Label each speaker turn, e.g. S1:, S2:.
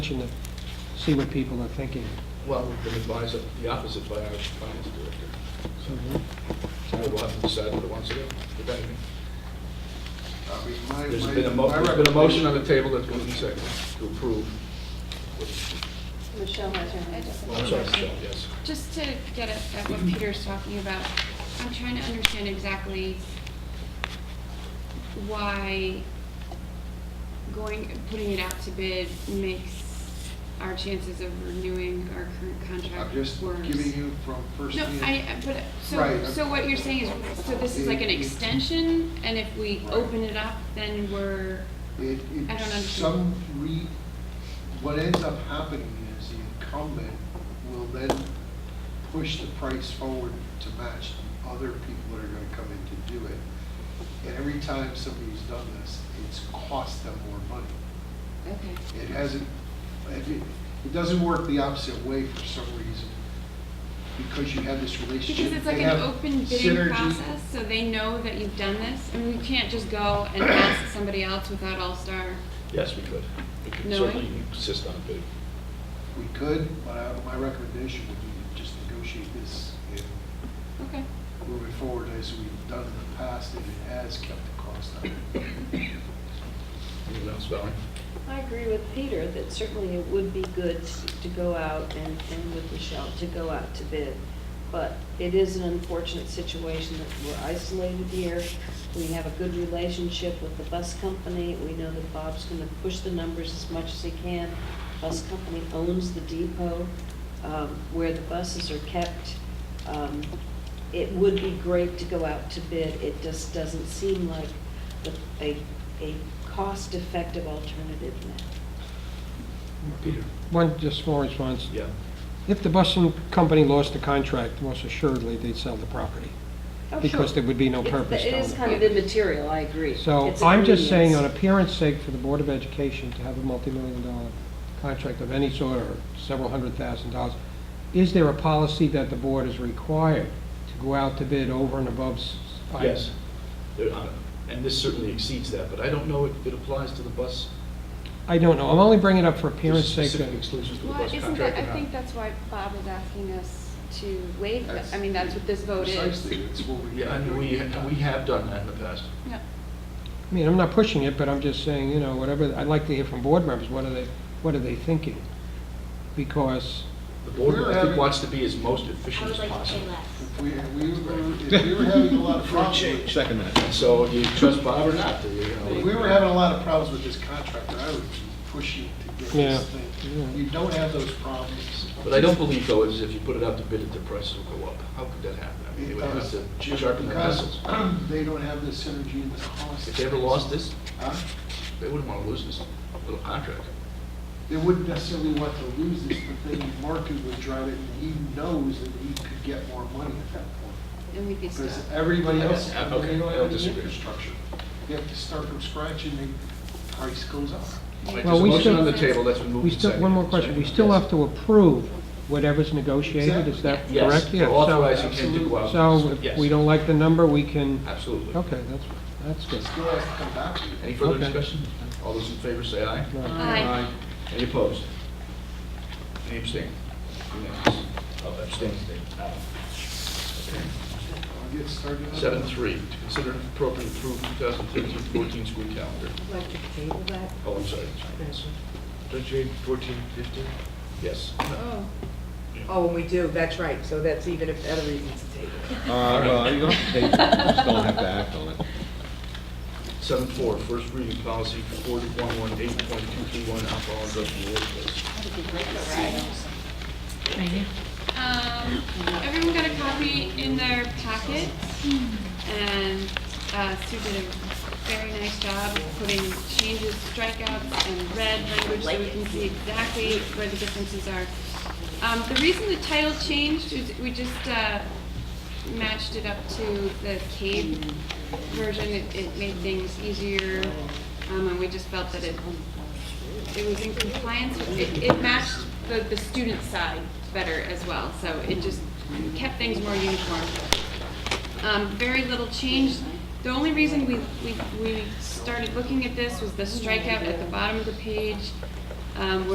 S1: to see what people are thinking.
S2: Well, we've been advised of the opposite by our finance director.
S1: So
S2: So we'll have to decide what it wants to do, if anything.
S3: I mean, my-
S2: There's
S3: my-
S2: been a mo,
S3: my
S2: there's been a motion on
S3: recommendation-
S2: the table that's going to be seconded to approve.
S4: Michelle has her hand
S2: Well, Oh, I'm
S4: up.
S2: sorry, Michelle, yes.
S5: Just to get at at what Peter's talking about, I'm trying to understand exactly why going, putting it out to bid makes our chances of renewing our current
S3: I'm
S5: contract worse.
S3: just giving you from first
S5: No,
S3: hand.
S5: I, I- but, so,
S3: Right.
S5: so what you're saying is, so this is like an extension, and if we open it up, then we're,
S3: It,
S5: I don't
S3: it's
S5: understand.
S3: some re, what ends up happening is the incumbent will then push the price forward to match other people that are gonna come in to do it. And every time somebody's done this, it's cost them more money.
S5: okay.
S3: It hasn't, it, it doesn't work the opposite way for some reason, because you have this relationship.
S5: Because it's like
S3: They
S5: an
S3: have
S5: open bidding
S3: synergy.
S5: process, so they know that you've done this, I mean, we can't just go and ask somebody else without All-Star.
S2: Yes, we could. We could
S5: No, I-
S2: certainly insist on a bid.
S3: We could, but I- my recommendation would be to just negotiate this and
S5: Okay,
S3: move it forward as we've done in the past, and it has kept the cost down.
S2: Anyone else, Valerie?
S4: I agree with Peter that certainly it would be good to go out and, and with Michelle, to go out to bid. But it is an unfortunate situation that we're isolated here. We have a good relationship with the bus company. We know that Bob's gonna push the numbers as much as he can. Bus company owns the depot, um, where the buses are kept. Um, it would be great to go out to bid. It just doesn't seem like the- a, a cost-effective alternative now.
S2: Peter?
S1: One, just small response.
S2: Yeah.
S1: If the busing company lost the contract, most assuredly, they'd sell the property. Because there would be no
S4: It's-
S1: purpose
S4: It
S1: down
S4: is
S1: the
S4: kind of
S1: road.
S4: immaterial, I agree.
S1: So
S4: It's
S1: I'm just saying, on
S4: convenience.
S1: appearance sake, for the Board of Education to have a multimillion dollar contract of any sort, or several hundred thousand dollars, is there a policy that the board is required to go out to bid over and above? s-
S2: Yes. There- uh, And this certainly exceeds that, but I don't know if it applies to the bus,
S1: I don't know, I'm only bringing it up for appearance
S2: there's
S1: sake.
S2: specific
S1: that-
S2: exclusions to the
S5: well,
S2: bus
S5: isn't that,
S2: contract. or
S5: I
S2: not.
S5: think that's why Bob is asking us to waive, that. I mean, that's what this vote is.
S3: Precisely, it's what we.
S2: Yeah, and we, and we have done that in the past.
S5: Yeah.
S1: I mean, I'm not pushing it, but I'm just saying, you know, whatever, I'd like to hear from board members, what are they, what are they thinking? Because,
S2: The board, I think,
S3: We're-
S2: wants to be as most
S6: I
S2: efficient
S6: would
S2: as
S6: like to say
S2: possible.
S6: less.
S3: If we, we were, if we were having a lot of problems, with-
S7: Second that.
S2: And so do you trust Bob or not? Do you, you know?
S3: if we were having a lot of problems with this contractor, I would be pushing to get
S1: Yeah.
S3: this thing. You don't have those problems.
S2: But I don't believe though, is if you put it out to bid, that the prices will go up. How could that happen? I mean, they would have
S3: Uh, Because
S2: to sharpen their pencils.
S3: Uh, they don't have the synergy and the cost.
S2: If they ever lost this,
S3: Huh?
S2: they wouldn't want to lose this little contract.
S3: they wouldn't necessarily want to lose this, but the market would drive it, and he knows that he could get more money at that point.
S5: And we'd be stuck.
S3: Because everybody else,
S2: Yeah,
S3: they
S2: okay,
S3: don't
S2: I
S3: have
S2: don't
S3: any
S2: disagree.
S3: infrastructure. They have to start from scratch, and the price goes up.
S2: All right,
S1: Well,
S2: There's a
S1: we
S2: motion
S1: still-
S2: on the table that's been moved
S1: we
S2: and
S1: still, one more
S2: seconded.
S1: question, we still have to approve whatever's negotiated, is that
S2: Yes,
S1: correct?
S2: we're
S1: Yeah, so-
S2: authorizing him to go out.
S1: So if we
S2: Yes,
S1: don't like the number, we can,
S2: Absolutely.
S1: okay, that's, that's
S3: It
S1: good.
S3: still has to come back to you.
S2: Any further
S1: Okay.
S2: discussion? All those in favor say aye.
S5: Aye.
S2: Any opposed? Any abstain? Unanimous. Oh, abstain, abstain. Okay.
S3: I'll get started. on it.
S2: Seven three, to consider and appropriate approve 2013-14 school calendar.
S4: I'd like to table that.
S2: Oh, I'm sorry.
S8: Don't you need 14, 15?
S2: Yes.
S5: Oh,
S9: Oh, and we do, that's right, so that's even a better reason to table it.
S7: Uh, well, you don't have to take it, you just don't have to act on it.
S2: Seven four, first reading policy 4118.231 alcohol and drugs in the workplace.
S5: Um, everyone got a copy in their packet, and uh, Sue did a very nice job of putting changes, strikeouts, and red language, so we can see exactly where the differences are. Um, the reason the title changed is we just, uh, matched it up to the cave version, it, it made things easier, um, and we just felt that it it was in compliance, with- it, it matched the, the student side better as well, so it just kept things more uniform. Um, very little change. The only reason we, we, we started looking at this was the strikeout at the bottom of the page, um, where